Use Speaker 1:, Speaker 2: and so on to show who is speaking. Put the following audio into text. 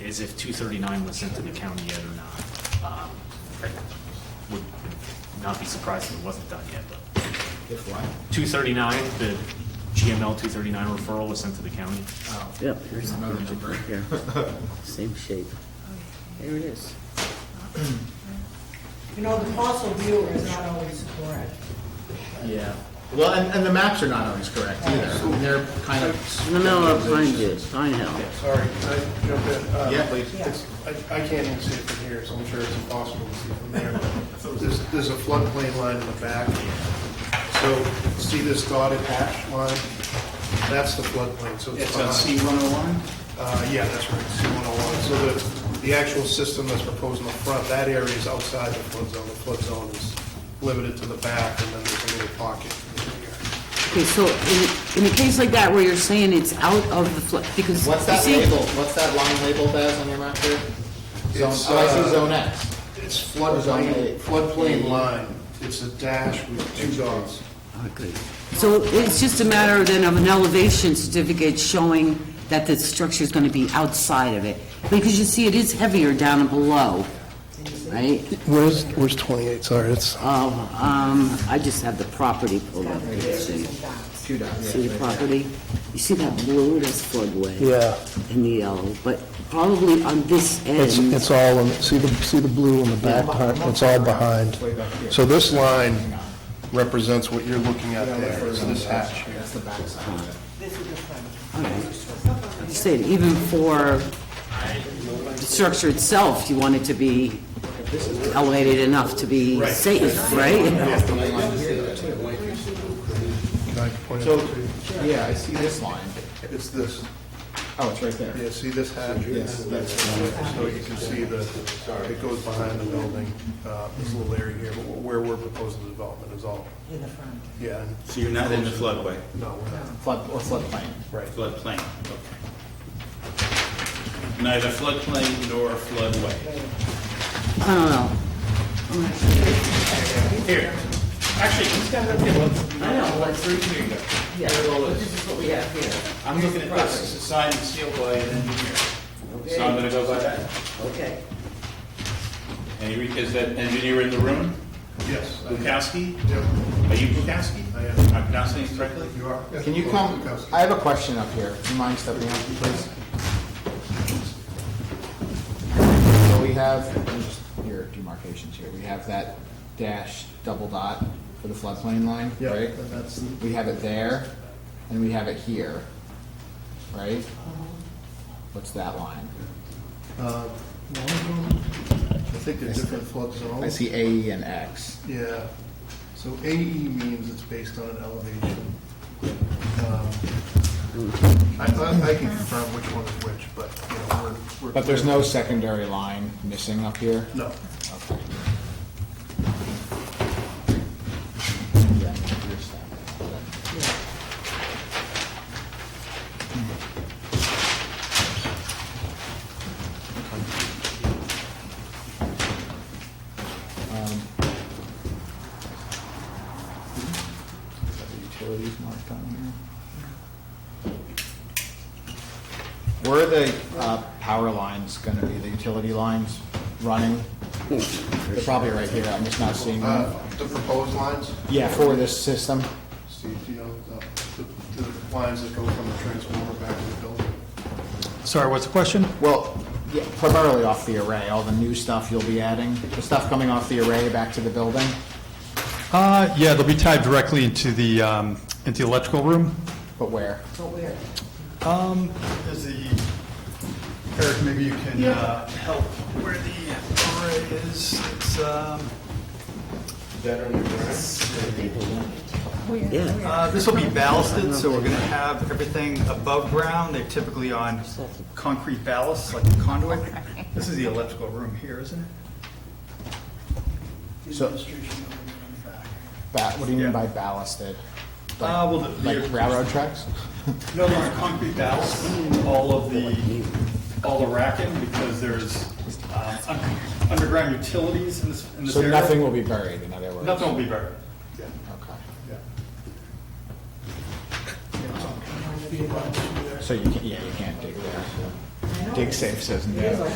Speaker 1: is if 239 was sent to the county yet or not. Um, I Would not be surprised if it wasn't done yet, but
Speaker 2: If what?
Speaker 1: 239, the GML 239 referral was sent to the county.
Speaker 2: Oh,
Speaker 3: Yep.
Speaker 2: Here's another number.
Speaker 3: Yeah. Same shape. There it is.
Speaker 4: You know, the parcel viewer is not always correct.
Speaker 2: Yeah. Well, and, and the maps are not always correct either. They're kind of.
Speaker 3: In the middle of Pine View, Pine Hill.
Speaker 5: Sorry, can I jump in? Uh,
Speaker 2: Yeah, please.
Speaker 4: Yeah.
Speaker 5: I I can't even see it from here, so I'm sure it's impossible to see from there. There's there's a floodplain line in the back. So see this dotted hatch line? That's the floodplain, so it's behind.
Speaker 2: C101?
Speaker 5: Uh, Yeah, that's right, C-101. So the, the actual system that's proposed in the front, that area is outside the flood zone. The flood zone is limited to the back, and then there's a little pocket in here.
Speaker 3: Okay, so in, in a case like that where you're saying it's out of the flood, because.
Speaker 2: What's
Speaker 3: you
Speaker 2: that
Speaker 3: see-
Speaker 2: label, what's that line labeled as on your map here? Zone,
Speaker 5: It's,
Speaker 2: oh, I
Speaker 5: uh,
Speaker 2: see zone X.
Speaker 5: It's
Speaker 2: Zone
Speaker 5: floodplain,
Speaker 2: eight.
Speaker 5: floodplain line. It's a dash with two dots.
Speaker 3: Oh, good. So it's just a matter then of an elevation certificate showing that the structure's gonna be outside of it. Because you see, it is heavier down below, right?
Speaker 5: Where's, where's 28? Sorry, it's.
Speaker 3: Um, um, I just have the property pulled up, here, see,
Speaker 2: Two dots.
Speaker 3: see the property? You see that blue, that's floodway?
Speaker 6: Yeah,
Speaker 3: And the yellow, but probably on this
Speaker 6: it's,
Speaker 3: end.
Speaker 6: it's all, in- see the, see the blue on the back part, it's all behind.
Speaker 5: So this line represents what you're looking at there, is this hatch here.
Speaker 2: That's the backside. of it.
Speaker 3: You said even for the structure itself, you want it to be elevated enough to be safe, right?
Speaker 5: Can I point it
Speaker 2: So,
Speaker 5: out to you?
Speaker 2: yeah, I see this line.
Speaker 5: It's this,
Speaker 2: Oh, it's right there.
Speaker 5: yeah, see this hatch?
Speaker 2: Yes.
Speaker 5: That's- So you can see the, it goes behind the building, uh, this little area here, but where we're proposing the development is all,
Speaker 4: In the front.
Speaker 5: yeah, and
Speaker 7: So you're not in the floodway,
Speaker 5: no, we're not.
Speaker 2: Flood, or floodplain.
Speaker 5: Right.
Speaker 7: floodplain, okay. Neither floodplain nor floodway.
Speaker 3: I don't know.
Speaker 7: Here, actually, he's got it here, look.
Speaker 3: I know, but-
Speaker 7: Through here you go.
Speaker 3: Yeah,
Speaker 7: Here it all is.
Speaker 3: this is what we have here.
Speaker 7: I'm looking at this, it's a signed and sealed by an engineer. So I'm gonna go by that.
Speaker 3: Okay.
Speaker 7: And you- is that engineer in the room?
Speaker 5: Yes. I am.
Speaker 7: Bukowski?
Speaker 5: Yep,
Speaker 7: Are you Bukowski?
Speaker 5: I am.
Speaker 7: Am I pronouncing it correctly?
Speaker 5: You are.
Speaker 2: Can you come, I have a question up here. Do you mind stepping up, please? So we have, let me just- here, demarcations here. We have that dash double dot for the floodplain line,
Speaker 5: Yeah,
Speaker 2: right?
Speaker 5: and that's,
Speaker 2: We have it there, and we have it here, right? What's that line?
Speaker 5: uh, one of them, I think they're different flood zones.
Speaker 2: I see A E and X.
Speaker 5: Yeah, so AE means it's based on an elevation. Um, I, I I can confirm which one is which, but, you know, we're. we're-
Speaker 2: But there's no secondary line missing up here?
Speaker 5: No,
Speaker 2: Okay. Um, is that the Utilities marked on here. Where are the uh, power lines going to be, the utility lines running? They're probably right here, I'm just not seeing them.
Speaker 5: uh, the proposed lines,
Speaker 2: Yeah, for this system,
Speaker 5: Steve, do you know, uh, the- the, the lines that go from the transformer back to the building?
Speaker 8: Sorry, what's the question?
Speaker 2: well, yeah, primarily off the array, all the new stuff you'll be adding, the stuff coming off the array back to the building?
Speaker 8: Uh, yeah, they'll be tied directly into the, um, into the electrical room.
Speaker 2: But where?
Speaker 4: But where?
Speaker 8: Um, is the, Eric, maybe you can, uh, help where the array is. It's, um,
Speaker 3: Yeah.
Speaker 8: uh, this will be ballasted, so we're gonna have everything above ground. They're typically on concrete ballasts, like conduit. This is the electrical room here, isn't it?
Speaker 2: So, ba- what do you mean by ballasted?
Speaker 8: Uh, well, the-
Speaker 2: Like railroad tracks?
Speaker 8: No, there's concrete ballast, all of the, all the racking, because there's uh, un- underground utilities in this in this
Speaker 2: So
Speaker 8: area.
Speaker 2: nothing will be buried, in other words?
Speaker 8: Nothing will be buried.
Speaker 2: Okay.
Speaker 4: I know.
Speaker 2: So you can't, yeah, you can't dig there.
Speaker 4: I know.
Speaker 2: dig safe says no.